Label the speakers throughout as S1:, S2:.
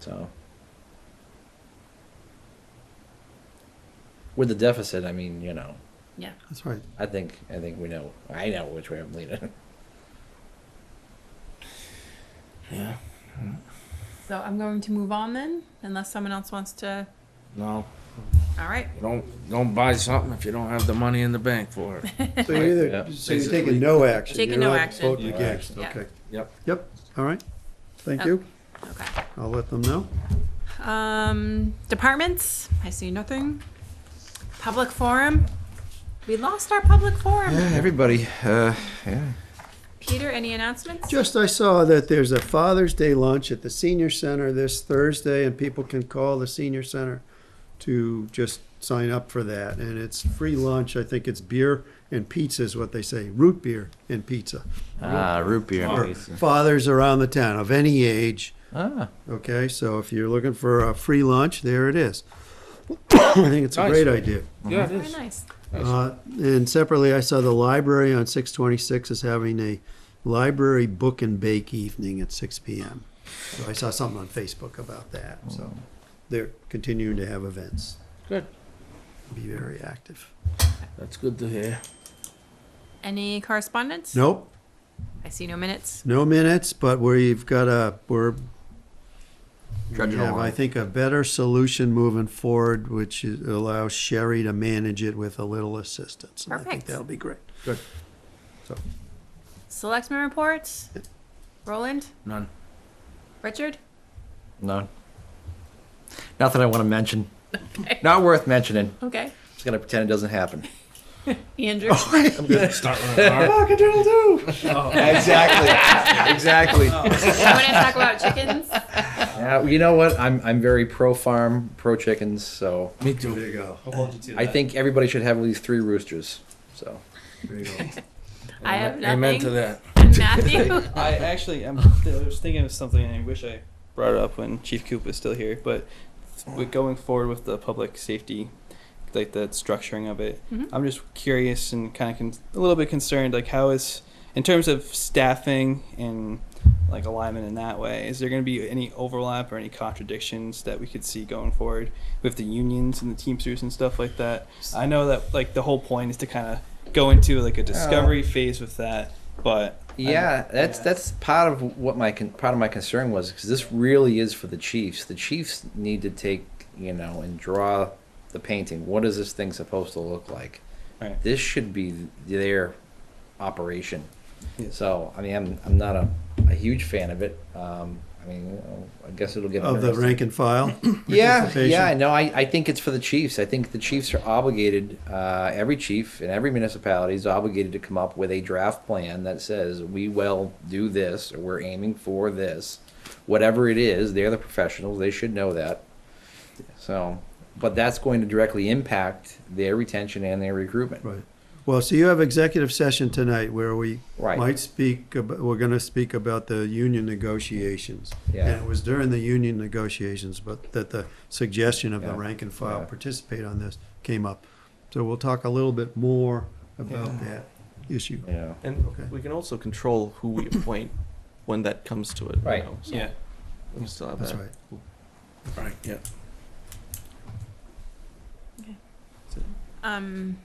S1: So with the deficit, I mean, you know,
S2: Yeah.
S3: That's right.
S1: I think I think we know. I know which way I'm leaning.
S4: Yeah.
S2: So I'm going to move on then, unless someone else wants to.
S4: No.
S2: All right.
S4: Don't don't buy something if you don't have the money in the bank for it.
S3: So you're
S1: Yeah.
S3: either, so you're taking
S4: Basically.
S3: no action.
S2: Taking
S3: You're
S2: no
S3: not
S2: action.
S3: Voting
S1: No
S3: against,
S2: action.
S3: okay.
S4: Yep.
S3: Yep, all right. Thank
S2: Oh.
S3: you.
S2: Okay.
S3: I'll let them know.
S2: Um, departments. I see nothing. Public forum. We lost our public forum.
S4: everybody. Uh, yeah.
S2: Peter, any announcements?
S3: Just, I saw that there's a Father's Day lunch at the senior center this Thursday, and people can call the senior center to just sign up for that. And it's free lunch. I think it's beer and pizza is what they say, root beer and pizza.
S4: Ah, root beer.
S3: For Fathers around the town of any age.
S1: ah,
S3: Okay, so if you're looking for a free lunch, there it is. I think it's a
S4: Nice.
S3: great idea.
S4: Yeah, it
S2: Very
S4: is.
S2: nice.
S3: Uh, And separately, I saw the library on 626 is having a library book and bake evening at 6 PM. So I saw something on Facebook about that, so they're continuing to have events,
S4: Mm. Good.
S3: be very active.
S4: That's good to hear.
S2: Any correspondence?
S3: Nope,
S2: I see no minutes.
S3: no minutes, but we've got a, we're, we
S4: Trudging
S3: have,
S4: along.
S3: I think, a better solution moving forward, which is- allows Sherry to manage it with a little assistance. And I think
S2: Perfect.
S3: that'll be great.
S2: Selectmen reports. Roland,
S4: None.
S2: Richard.
S1: no, nothing I want to mention. Not worth mentioning.
S2: Okay.
S1: Just gonna pretend it doesn't happen.
S2: Andrew.
S4: Start with a car.
S1: Oh. exactly. Exactly.
S2: I want to talk about chickens.
S1: Yeah, you know what? I'm I'm very pro farm, pro chickens. So
S4: Me too.
S3: you go.
S1: I think everybody should have at least three roosters. So
S3: There you go.
S2: I have nothing.
S4: Amen to that.
S2: And Matthew.
S5: I actually, I'm, I was thinking of something. and I wish I brought it up when Chief Coop was still here, but with going forward with the public safety, like the structuring of it,
S2: Mhm.
S5: I'm just curious and kind of con- a little bit concerned. Like, how is in terms of staffing and like alignment in that way? Is there going to be any overlap or any contradictions that we could see going forward with the unions and the Teamsters and stuff like that? I know that like the whole point is to kind of go into like a discovery phase with that, but
S1: Oh. yeah, that's
S5: yeah.
S1: that's part of what my con- part of my concern was because this really is for the Chiefs. The Chiefs need to take you know and draw the painting. What is this thing supposed to look like?
S5: Right.
S1: This should be their operation.
S5: Yeah.
S1: So I mean, I'm I'm not a, a huge fan of it. Um, I mean, you know, I guess it'll get
S3: Of the
S1: interesting.
S3: rank and file?
S1: Yeah,
S3: participation?
S1: yeah, no, I, I think it's for the chiefs. I think the chiefs are obligated, uh, every chief and every municipality is obligated to come up with a draft plan that says, we will do this, or we're aiming for this. Whatever it is, they're the professionals, they should know that. So, but that's going to directly impact their retention and their recruitment.
S3: Right. Well, so you have executive session tonight where we
S1: Right.
S3: might speak, ab- we're going to speak about the union negotiations.
S1: Yeah.
S3: And it was during the union negotiations, but that the suggestion of the
S1: Yeah.
S3: rank and file
S1: Yeah.
S3: participate on this came up. So we'll talk a little bit more about that issue.
S1: Yeah,
S6: And
S3: Okay.
S6: we can also control who we appoint when that comes to it. you
S1: Right.
S6: know, so
S5: yeah.
S6: We still have
S3: That's
S6: that.
S3: right.
S4: Right. Yeah.
S2: Um,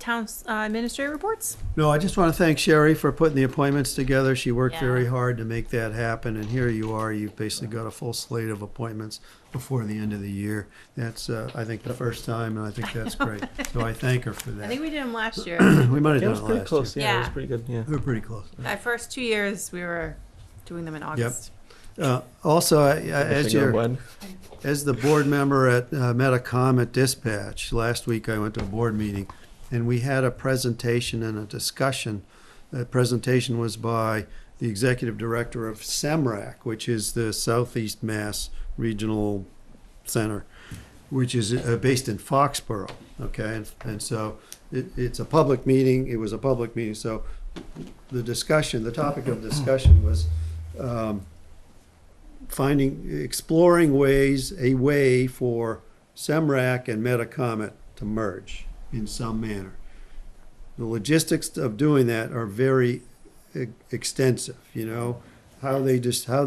S2: town uh, administrator reports.
S3: No, I just want to thank Sherry for putting the appointments together. She worked
S2: Yeah.
S3: very hard to make that happen, and here you are. You've basically got a full slate of appointments before the end of the year. That's, uh, I think, the first time, and I think that's great. So I thank her for
S2: I think
S3: that.
S2: we did them last year.
S3: We might have
S6: Yeah, it
S3: done
S6: was pretty
S3: it last year.
S6: close. Yeah, it was
S2: Yeah.
S6: pretty good. Yeah.
S3: We were pretty close.
S2: Our first two years, we were doing them in August.
S3: Uh, Also, I- I- as
S6: Finger
S3: you're,
S6: one.
S3: As the board member at uh, Metacom at Dispatch, last week I went to a board meeting, and we had a presentation and a discussion. The presentation was by the executive director of SEMRAC, which is the Southeast Mass Regional Center, which is uh, based in Foxborough, okay? And- And so it, it's a public meeting, it was a public meeting, so the discussion, the topic of discussion was um, finding, exploring ways, a way for SEMRAC and Metacomet to merge in some manner. The logistics of doing that are very e- extensive, you know, how they just, how